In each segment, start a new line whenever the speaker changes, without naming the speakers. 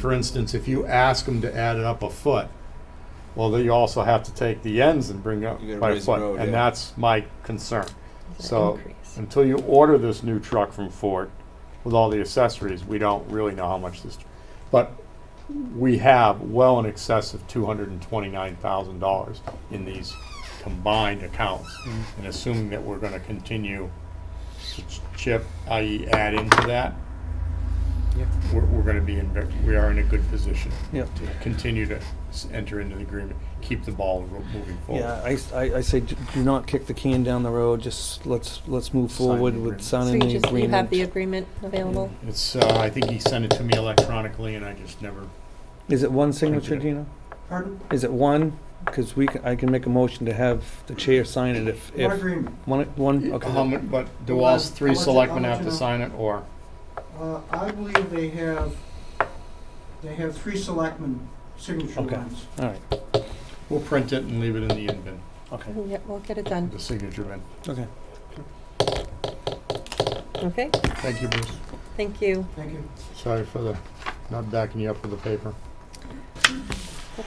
For instance, if you ask them to add it up a foot, well, then you also have to take the ends and bring it
You gotta
up by a
raise the
foot.
road,
And
yeah.
that's my concern.
It's an
So
increase.
until you order this new truck from Ford with all the accessories, we don't really know how much this, but we have well in excess of two hundred and twenty-nine thousand dollars in these combined accounts.
Mm-hmm.
And assuming that we're gonna continue to ch- chip, i.e. add into that,
Yeah.
we're, we're gonna be in, ve- we are in a good position.
Yeah.
To continue to s- enter into the agreement, keep the ball ro- moving forward.
Yeah, I, s- I- I say d- do not kick the can down the road, just let's, let's move
Sign the
forward
agreement.
with
So
signing
you
the
just, you have the
agreement.
agreement available?
It's, uh, I think he sent it to me electronically and I just never
Is it one signature,
it.
Gina?
Pardon?
Is it one? Because we, c- I can make a motion to have the chair sign it if,
What
if,
agreement?
one, Uh-huh. one,
How
okay.
mu- but do
Well,
all
I'll-
three
I'll let you-
selectmen
I'll let
have to
you know.
sign it, or?
Uh, I believe they have, they have three selectmen signature
Okay.
lines.
All right,
We'll print it and leave it in the in bin,
okay,
Yeah, we'll get it done.
the signature bin.
okay.
Okay,
Thank you, Bruce.
thank you.
Thank you.
Sorry for the, not backing you up with the paper.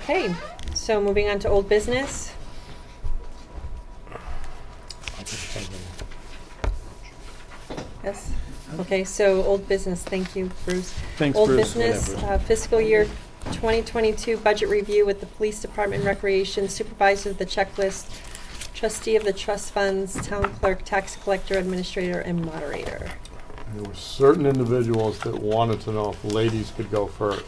Okay, so moving on to old business. Yes, okay, so old business, thank you, Bruce.
Thanks,
Old
Bruce.
business,
Whatever.
uh, fiscal year 2022 budget review with the Police Department Recreation Supervisor of the Checklist, Trustee of the Trust Funds, Town Clerk, Tax Collector, Administrator, and Moderator.
There were certain individuals that wanted to know if ladies could go first.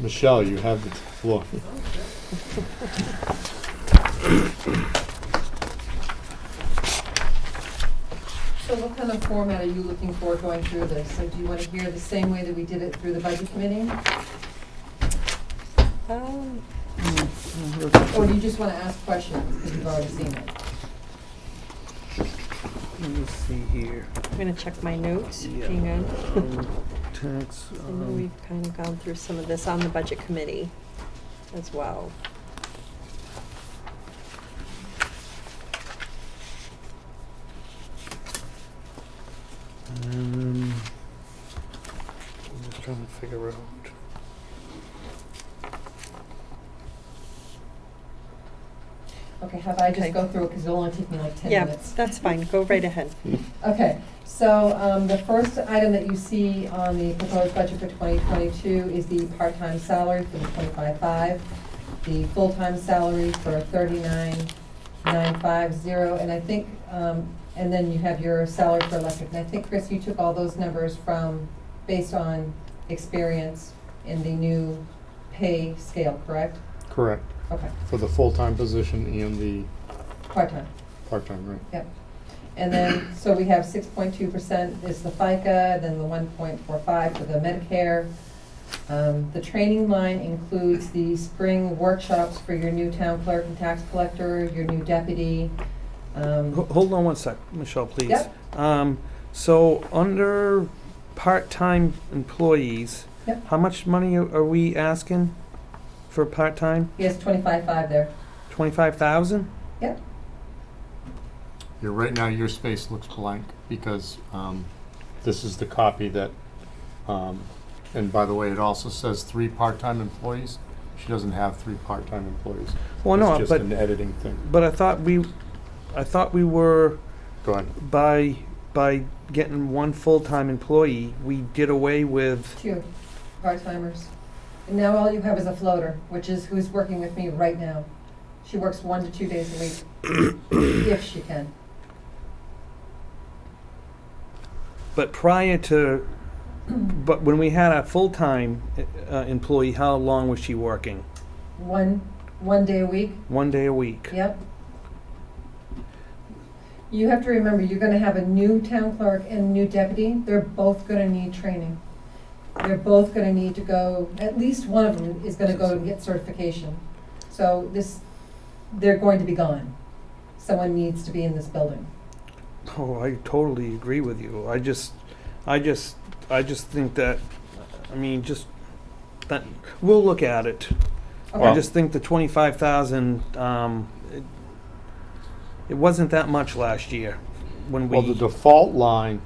Michelle, you have the floor.
So what kind of format are you looking for going through this? So do you want to hear the same way that we did it through the budget committee?
Um,
Or do you just want to ask questions because you've already seen it?
uh,
Let me see here.
I'm gonna check my notes,
Yeah.
hang on.
Um, Tax,
I know
um,
we've kind of gone through some of this on the budget committee as well.
um, I'm just trying to figure out.
Okay, have I
Okay.
just go through it because it'll only take me like 10
Yeah,
minutes?
that's fine, go right ahead.
Okay, so um, the first item that you see on the proposed budget for 2022 is the part-time salary for the 25.5, the full-time salary for 39,950, and I think, um, and then you have your salary for electric. And I think, Chris, you took all those numbers from, based on experience in the new pay scale, correct?
Correct,
Okay,
for the full-time position and the
part-time.
part-time, right?
Yep. And then, so we have six point two percent is the FICA, then the one point four five for the Medicare. Um, the training line includes the spring workshops for your new town clerk and tax collector, your new deputy.
Ho-
Um,
Hold on one sec, Michelle, please.
Yep.
Um, so under part-time employees,
Yep.
how much money are are we asking for part-time?
he has twenty-five five there.
Twenty-five thousand?
Yeah, right now, your space looks blank because um, this is the copy that, um, and by the way, it also says three part-time employees. She doesn't have three part-time employees.
Well, no,
It's just
but,
an editing thing.
but I thought we, I thought we were,
Go ahead.
by, by getting one full-time employee, we did away with,
Two part-timers. And now all you have is a floater, which is who's working with me right now. She works one to two days a week, if she can.
but prior to, but when we had a full-time uh, uh, employee, how long was she working?
One, one day a week,
One day a week?
Yep. You have to remember, you're gonna have a new town clerk and new deputy, they're both gonna need training. They're both gonna need to go, at least one of them is gonna go and get certification. So this, they're going to be gone. Someone needs to be in this building.
Oh, I totally agree with you. I just, I just, I just think that, I mean, just, that, we'll look at it. I
Okay.
just think the twenty-five thousand, um, it, it wasn't that much last year when we.
Well, the default line